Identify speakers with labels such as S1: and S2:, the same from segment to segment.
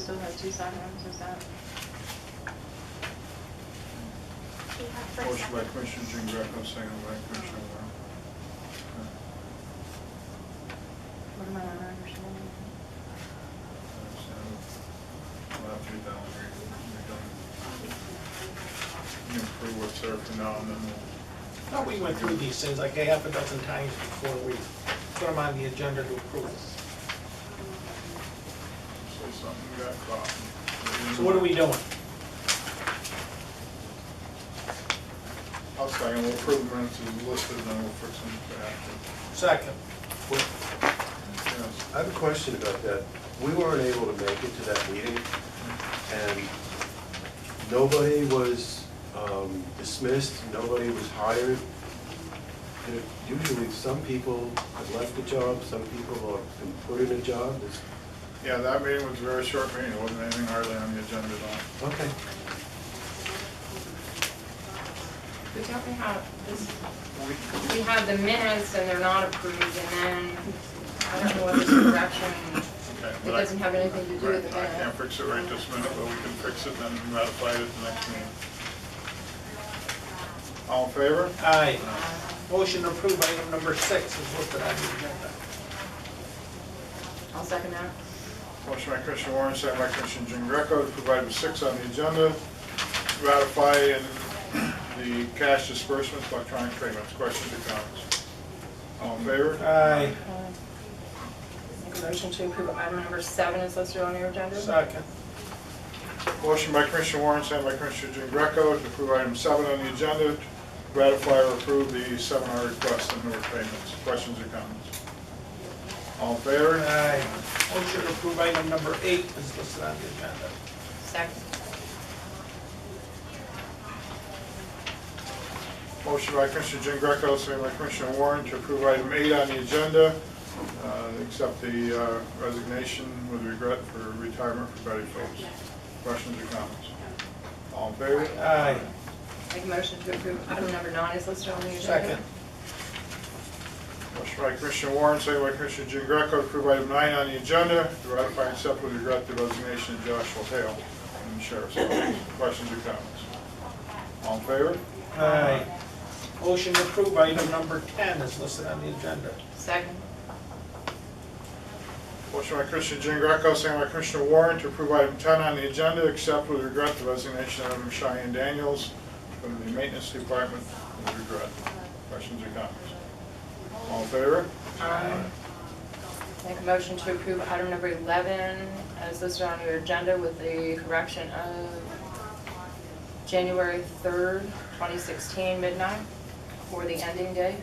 S1: still have two sidewalks, is that?
S2: Do you have for a
S3: Motion by
S2: second?
S3: Commissioner Jean Greco, second by Commissioner Warren.
S1: What am I not understanding?
S3: We'll have to do that one, we we don't, you approve what's there for now, and then we'll,
S4: I thought we went through these things like a half a dozen times before we put them on the agenda to approve.
S3: say something got caught.
S4: So what are we doing?
S3: I'll second, we'll approve minutes as listed, and then we'll fix them after.
S4: Second.
S3: Yes.
S5: I have a question about that. We weren't able to make it to that meeting, and nobody was um, dismissed, nobody was hired. There- Usually, some people have left the job, some people have been put in a job. It's-
S3: Yeah, that meeting was a very short meeting, it wasn't anything hardly on the agenda at all.
S5: Okay.
S6: We don't have, this, we have the minutes and they're not approved, and then, I don't know what this direction,
S3: Okay,
S6: it
S3: but I-
S6: doesn't have anything to do with the
S3: Right, I can't
S6: minutes.
S3: fix it right this minute, but we can fix it and then ratify it at the next meeting. All in favor?
S4: Aye. Motion to approve item number six is listed on the agenda.
S6: I'll second that.
S3: Motion by Commissioner Warren, second by Commissioner Jean Greco to provide with six on the agenda, to ratify in the cash disbursements, electronic payments. Questions or comments? All in favor?
S4: Aye.
S6: Make a motion to approve item number seven is listed on your agenda.
S4: Second.
S3: Motion by Commissioner Warren, second by Commissioner Jean Greco to approve item seven on the agenda, to ratify or approve the seminar requests and newer payments. Questions or comments? All in favor?
S4: Aye. Motion to approve item number eight is listed on the agenda.
S6: Second.
S3: Motion by Commissioner Jean Greco, second by Commissioner Warren to approve item eight on the agenda, uh, accept the uh, resignation with regret for retirement for Betty Phillips. Questions or comments? All in favor?
S4: Aye.
S6: Make a motion to approve item number nine is listed on the agenda.
S4: Second.
S3: Motion by Commissioner Warren, second by Commissioner Jean Greco to approve item nine on the agenda, to ratify and accept with regret the resignation of Joshua Hale from the Sheriff's Office. Questions or comments? All in favor?
S4: Aye. Motion to approve item number 10 is listed on the agenda.
S6: Second.
S3: Motion by Commissioner Jean Greco, second by Commissioner Warren to approve item 10 on the agenda, except with regret the resignation of Cheyenne Daniels from the Maintenance Department with regret. Questions or comments? All in favor?
S6: Aye. Make a motion to approve item number 11 as listed on your agenda with the correction of January 3rd, 2016 midnight for the ending date.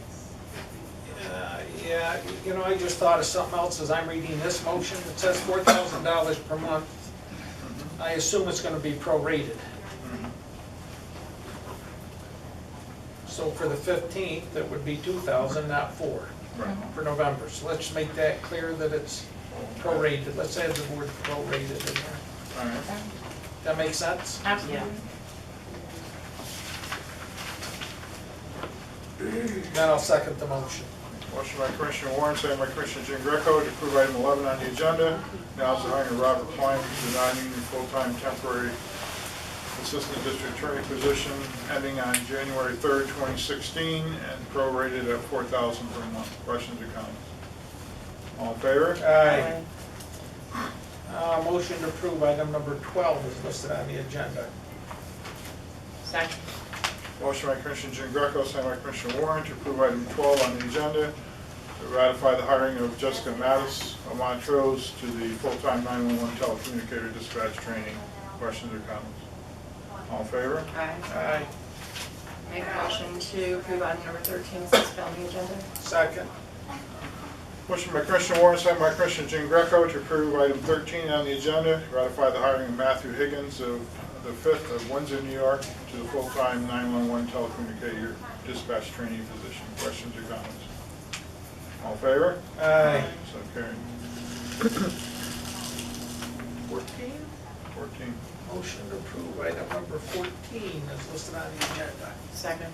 S4: Uh, Yeah, you know, I just thought of something else as I'm reading this motion. It says $4,000 per month. I assume it's going to be prorated.
S3: Mm-hmm.
S4: So for the 15th, it would be 2,000, not 4,
S3: Right.
S4: for November. So let's make that clear that it's prorated. Let's add the word prorated in there.
S3: All right.
S4: That make sense?
S6: Absolutely.
S4: Then I'll second the motion.
S3: Motion by Commissioner Warren, second by Commissioner Jean Greco to approve item 11 on the agenda. Now it's the hiring of Robert Klein to the non-union full-time temporary assistant district attorney position ending on January 3rd, 2016, and prorated at 4000 per month. Questions or comments? All in favor?
S4: Aye. Uh, Motion to approve item number 12 is listed on the agenda.
S6: Second.
S3: Motion by Commissioner Jean Greco, second by Commissioner Warren to approve item 12 on the agenda to ratify the hiring of Jessica Mattis of Montrose to the full-time 911 telecommunicator dispatch training. Questions or comments? All in favor?
S6: Aye.
S4: Aye.
S6: Make a motion to approve item number 13 is listed on the agenda.
S4: Second.
S3: Motion by Commissioner Warren, second by Commissioner Jean Greco to approve item 13 on the agenda, to ratify the hiring of Matthew Higgins of the 5th of Windsor, New York, to the full-time 911 telecommunicator dispatch training position. Questions or comments? All in favor?
S4: Aye.
S3: So carried. 14? 14.
S4: Motion to approve item number 14 is listed on the agenda.
S6: Second.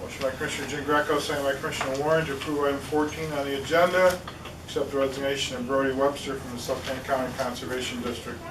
S3: Motion by Commissioner Jean Greco, second by Commissioner Warren to approve item 14 on the agenda, Accept the resignation of Brody Webster from the Spokane County Conservation District.